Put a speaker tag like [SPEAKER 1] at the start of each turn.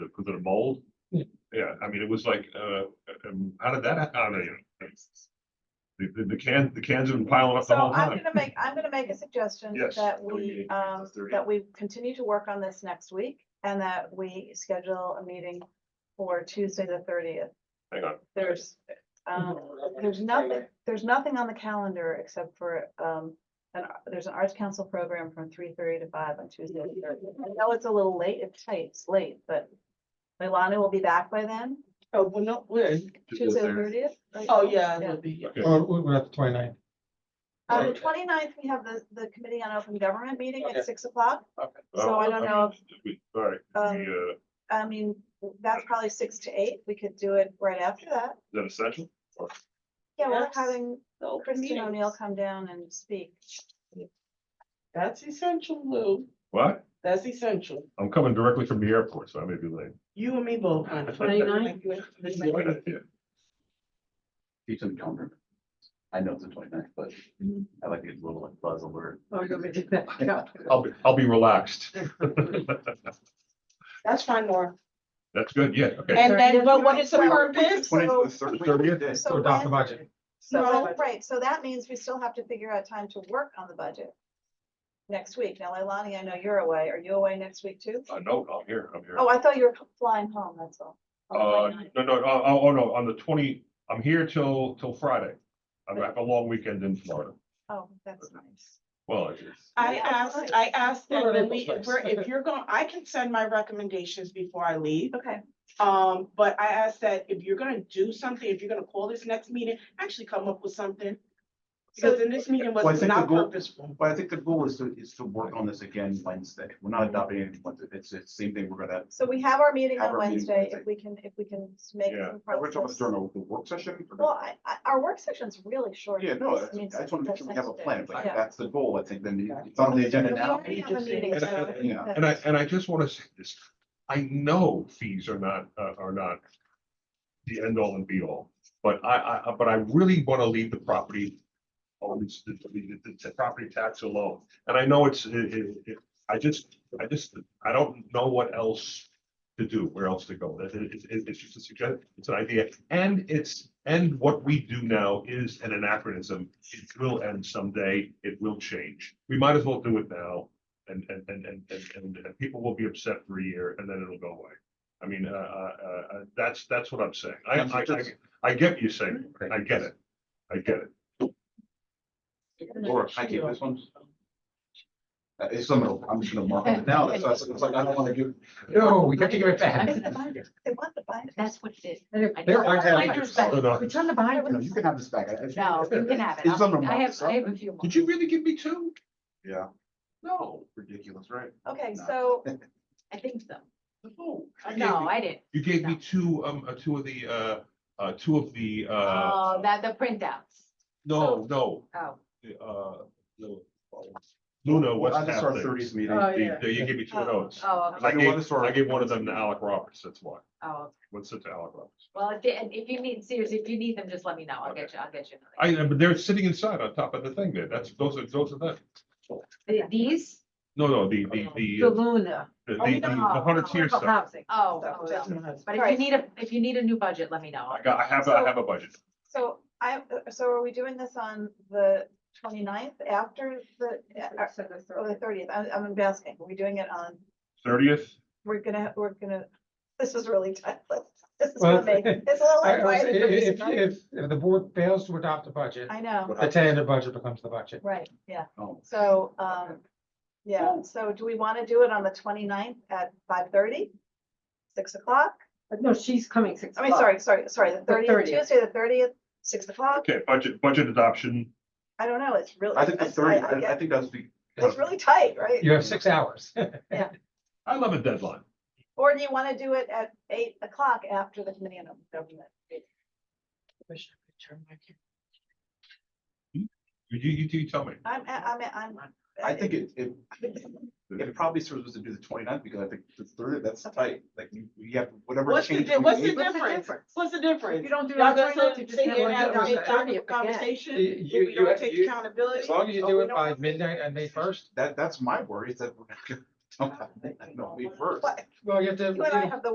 [SPEAKER 1] was it a mold?
[SPEAKER 2] Yeah.
[SPEAKER 1] Yeah, I mean, it was like, uh, um, how did that, hap- how did it? The, the- the can, the cans have been piling up the
[SPEAKER 3] So
[SPEAKER 1] whole
[SPEAKER 3] I'm
[SPEAKER 1] time.
[SPEAKER 3] gonna make, I'm gonna make a suggestion
[SPEAKER 1] Yes,
[SPEAKER 3] that
[SPEAKER 1] that we
[SPEAKER 3] we,
[SPEAKER 1] meet at
[SPEAKER 3] um,
[SPEAKER 1] 6:30.
[SPEAKER 3] that we continue to work on this next week and that we schedule a meeting for Tuesday, the thirtieth.
[SPEAKER 1] Hang on,
[SPEAKER 3] There's, um,
[SPEAKER 2] Mhm.
[SPEAKER 3] there's nothing, there's nothing on the calendar except for, um, an, there's an arts council program from three thirty to five on Tuesday. the 30th. I know it's a little late, it's late, it's late, but Leilani will be back by then,
[SPEAKER 2] Oh, well, not weird.
[SPEAKER 1] Tuesday the
[SPEAKER 3] Tuesday the
[SPEAKER 1] 30th.
[SPEAKER 3] thirtieth.
[SPEAKER 2] Oh, yeah, it
[SPEAKER 3] Yeah.
[SPEAKER 2] would be, yeah.
[SPEAKER 1] okay,
[SPEAKER 4] Or we're at the 29th.
[SPEAKER 3] On the
[SPEAKER 2] Right.
[SPEAKER 3] 29th, we have the, the Committee on Open Government meeting
[SPEAKER 2] Okay.
[SPEAKER 3] at six o'clock.
[SPEAKER 2] Okay.
[SPEAKER 3] So I
[SPEAKER 1] Oh,
[SPEAKER 3] don't know, if-
[SPEAKER 1] we- all right,
[SPEAKER 3] Um,
[SPEAKER 1] we, uh, is
[SPEAKER 3] I mean, that's probably six to eight. We could do it right after that.
[SPEAKER 1] that essential?
[SPEAKER 3] Yeah, we're
[SPEAKER 2] Yes.
[SPEAKER 3] having
[SPEAKER 2] The open
[SPEAKER 3] Christine
[SPEAKER 2] meetings.
[SPEAKER 3] O'Neill come down and speak.
[SPEAKER 2] That's essential, Lou.
[SPEAKER 1] What?
[SPEAKER 2] That's essential.
[SPEAKER 1] I'm coming directly from the airport, so I may be late.
[SPEAKER 2] You and me both. huh?
[SPEAKER 5] 29?
[SPEAKER 1] Yeah.
[SPEAKER 6] You took not remember. I know it's the 29th, but
[SPEAKER 4] Mm-hmm.
[SPEAKER 5] Mhm.
[SPEAKER 6] I like these little like buzz alert.
[SPEAKER 5] Oh, you want me to do that? Yeah.
[SPEAKER 1] I'll be, I'll be relaxed.
[SPEAKER 2] That's fine, Nora.
[SPEAKER 1] That's good, yeah, okay.
[SPEAKER 2] And then, but what is the
[SPEAKER 3] Well,
[SPEAKER 2] purpose?
[SPEAKER 3] so-
[SPEAKER 4] So
[SPEAKER 3] So
[SPEAKER 4] adopt the
[SPEAKER 3] when-
[SPEAKER 4] budget.
[SPEAKER 3] so
[SPEAKER 2] No.
[SPEAKER 3] that- right, so that means we still have to figure out time to work on the budget next week. Now, Leilani, I know you're away. Are you away next week too?
[SPEAKER 1] Uh, no, I'm here, I'm here.
[SPEAKER 3] Oh, I thought you were flying home, that's all.
[SPEAKER 1] Uh, no, no, oh, oh, oh, no, on the twenty, I'm here till, till Friday. I'm have a long weekend in Florida.
[SPEAKER 3] Oh, that's nice.
[SPEAKER 1] Well, it's-
[SPEAKER 2] I asked, I asked them, and we, if
[SPEAKER 4] Alright.
[SPEAKER 2] we're, if you're going, I can send my recommendations before I leave.
[SPEAKER 3] Okay,
[SPEAKER 2] Um, but I asked that if you're gonna do something, if you're gonna call this next meeting, actually come up with something. Because in this meeting
[SPEAKER 6] Well, I
[SPEAKER 2] was
[SPEAKER 6] think the
[SPEAKER 2] not
[SPEAKER 6] goal-
[SPEAKER 2] purposeful.
[SPEAKER 6] But I think the goal is to, is to work on this again Wednesday. We're not adopting it Wednesday. It's the same thing we're gonna.
[SPEAKER 3] so we have our meeting
[SPEAKER 6] Have
[SPEAKER 3] on
[SPEAKER 6] our meeting
[SPEAKER 3] Wednesday. If
[SPEAKER 6] Wednesday.
[SPEAKER 3] we can, if we can make
[SPEAKER 1] Yeah.
[SPEAKER 3] some
[SPEAKER 6] Are we talking
[SPEAKER 3] progress.
[SPEAKER 6] about during the the work session? or-
[SPEAKER 3] Well, I, I, our work session's really short.
[SPEAKER 6] Yeah, no, I I
[SPEAKER 3] mean,
[SPEAKER 6] just want to make sure we have a plan. Like,
[SPEAKER 3] Yeah.
[SPEAKER 6] that's the goal, I think. Then you- it's on the agenda
[SPEAKER 3] We
[SPEAKER 6] now.
[SPEAKER 3] already have a meeting,
[SPEAKER 1] And I-
[SPEAKER 3] so
[SPEAKER 6] and I-
[SPEAKER 3] that's-
[SPEAKER 1] And I, and I just want to say this, I know fees are not, uh, are not the end all and be all, but I, I, but I really want to leave the property owns the, the, the- the property tax alone. And I know it's, it, it, it- I just, I just, I don't know what else to do, where else to go. That, it, it- it's just a suggestion, it's an idea. And it's, and what we do now is an anachronism. It will end someday, it will change. We might as well do it now and, and, and, and, and, and- and people will be upset for a year and then it'll go away. I mean, uh, uh, uh, uh, that's, that's what I'm saying. I, I, I, I get what you're saying. I get it. I get it.
[SPEAKER 6] Laura, can I keep this one? Uh, It's something, I'm just gonna mark it now. That's, that's- it's like, I don't want to give.
[SPEAKER 4] No, we have to give it
[SPEAKER 5] I
[SPEAKER 4] back.
[SPEAKER 5] mean, the binder,
[SPEAKER 3] They want the binder.
[SPEAKER 5] That's what it
[SPEAKER 4] They're-
[SPEAKER 5] is.
[SPEAKER 4] they're- I have-
[SPEAKER 5] Binder's
[SPEAKER 1] No,
[SPEAKER 5] back.
[SPEAKER 1] no,
[SPEAKER 5] It's on the binder.
[SPEAKER 6] No, You can have this back. I- I-
[SPEAKER 5] No, you can have it.
[SPEAKER 6] It's on the
[SPEAKER 5] I'll- I have, I
[SPEAKER 6] mark.
[SPEAKER 5] have a few more.
[SPEAKER 1] Did you really give me two?
[SPEAKER 6] Yeah,
[SPEAKER 1] No,
[SPEAKER 6] ridiculous, right?
[SPEAKER 3] Okay,
[SPEAKER 6] No.
[SPEAKER 3] so,
[SPEAKER 5] I think so.
[SPEAKER 1] no. you gave
[SPEAKER 5] No,
[SPEAKER 1] me-
[SPEAKER 5] I didn't.
[SPEAKER 1] You gave me two, um, uh, two of the, uh, uh, two of the, uh,
[SPEAKER 5] Oh, that, the printouts.
[SPEAKER 1] no, no,
[SPEAKER 5] Oh,
[SPEAKER 1] the, uh, no. Luna was
[SPEAKER 6] I just
[SPEAKER 1] half
[SPEAKER 6] saw our
[SPEAKER 1] there.
[SPEAKER 6] thirties meeting.
[SPEAKER 2] Oh,
[SPEAKER 1] You
[SPEAKER 2] yeah.
[SPEAKER 1] you gave me two of
[SPEAKER 3] Oh.
[SPEAKER 1] those.
[SPEAKER 5] oh,
[SPEAKER 1] I
[SPEAKER 5] okay,
[SPEAKER 6] Like- know, I
[SPEAKER 1] gave,
[SPEAKER 6] just saw-
[SPEAKER 1] I gave one of them to Alec Roberts, that's why.
[SPEAKER 5] oh,
[SPEAKER 1] What's it to Alec Roberts?
[SPEAKER 5] well, if, they- and if you need, seriously, if you need them, just let me know. I'll get you, I'll get you. another.
[SPEAKER 1] I, uh, but they're sitting inside on top of the thing there. That's, those are, those are that.
[SPEAKER 5] The- These?
[SPEAKER 1] No, no, the, the, the,
[SPEAKER 5] The
[SPEAKER 1] uh,
[SPEAKER 5] Luna.
[SPEAKER 1] the, the the hundred tier
[SPEAKER 5] Affordable
[SPEAKER 1] stuff.
[SPEAKER 5] Oh,
[SPEAKER 2] That-
[SPEAKER 5] oh,
[SPEAKER 2] that's
[SPEAKER 5] oh.
[SPEAKER 2] not-
[SPEAKER 5] but if you need a, if you need a new budget, let me know.
[SPEAKER 1] I got, I have, I have a budget.
[SPEAKER 3] so I, so are we doing this on the 29th after the, uh, or the thirtieth? I'm, I'm asking, are we doing it on,
[SPEAKER 1] Thirtieth,
[SPEAKER 3] we're gonna, we're gonna, this is really tight. This is
[SPEAKER 4] Well,
[SPEAKER 3] gonna make, it's a little
[SPEAKER 4] I- I-
[SPEAKER 3] anxiety for me
[SPEAKER 4] If,
[SPEAKER 3] sometimes.
[SPEAKER 4] if, if the board fails to adopt the budget,
[SPEAKER 3] I know,
[SPEAKER 4] the tentative budget becomes the budget.
[SPEAKER 3] right, yeah,
[SPEAKER 6] Oh.
[SPEAKER 3] so, um, yeah, so do we want to do it on the 29th at five thirty? Six o'clock?
[SPEAKER 5] No, she's coming six
[SPEAKER 3] I mean, sorry, sorry, sorry, the thirtieth,
[SPEAKER 5] 30th.
[SPEAKER 3] Tuesday, the thirtieth, six o'clock?
[SPEAKER 1] okay, budget, budget adoption,
[SPEAKER 3] I don't know, it's really.
[SPEAKER 6] I think the
[SPEAKER 3] it's-
[SPEAKER 6] thirty,
[SPEAKER 3] I- I
[SPEAKER 6] I, I
[SPEAKER 3] get-
[SPEAKER 6] think that's the.
[SPEAKER 3] It's really tight, right?
[SPEAKER 4] You have six hours.
[SPEAKER 1] I love a deadline.
[SPEAKER 3] Or do you want to do it at eight o'clock after the committee on Open government?
[SPEAKER 2] Wish I could turn my camera.
[SPEAKER 1] You, you, you tell me.
[SPEAKER 3] I'm, I'm, I'm.
[SPEAKER 6] I think it, it, it probably serves us to do the 29th because I think the third, that's tight, like you, you have whatever.
[SPEAKER 2] What's the,
[SPEAKER 6] change
[SPEAKER 2] di-
[SPEAKER 6] we
[SPEAKER 2] what's the
[SPEAKER 6] made-
[SPEAKER 5] What's the
[SPEAKER 2] difference?
[SPEAKER 5] difference?
[SPEAKER 2] What's the
[SPEAKER 5] If you
[SPEAKER 2] difference?
[SPEAKER 5] don't do it
[SPEAKER 2] Y'all
[SPEAKER 5] on
[SPEAKER 2] gonna sit
[SPEAKER 5] twenty-nine, you just
[SPEAKER 2] sit
[SPEAKER 5] have
[SPEAKER 2] here and
[SPEAKER 5] one
[SPEAKER 2] have
[SPEAKER 5] done on the
[SPEAKER 2] a
[SPEAKER 5] thirtieth
[SPEAKER 2] document
[SPEAKER 5] again.
[SPEAKER 2] conversation?
[SPEAKER 4] You-
[SPEAKER 2] If
[SPEAKER 4] you-
[SPEAKER 2] we don't
[SPEAKER 4] you-
[SPEAKER 2] take
[SPEAKER 4] you-
[SPEAKER 2] accountability?
[SPEAKER 4] As long as you
[SPEAKER 2] or
[SPEAKER 4] do
[SPEAKER 2] we
[SPEAKER 4] it
[SPEAKER 2] don't
[SPEAKER 4] by
[SPEAKER 2] have-
[SPEAKER 4] midnight on May first,
[SPEAKER 6] That, that's my worry, is that we're not gonna, don't have, no, we first.
[SPEAKER 3] But
[SPEAKER 4] well, you have to.
[SPEAKER 3] you and I have the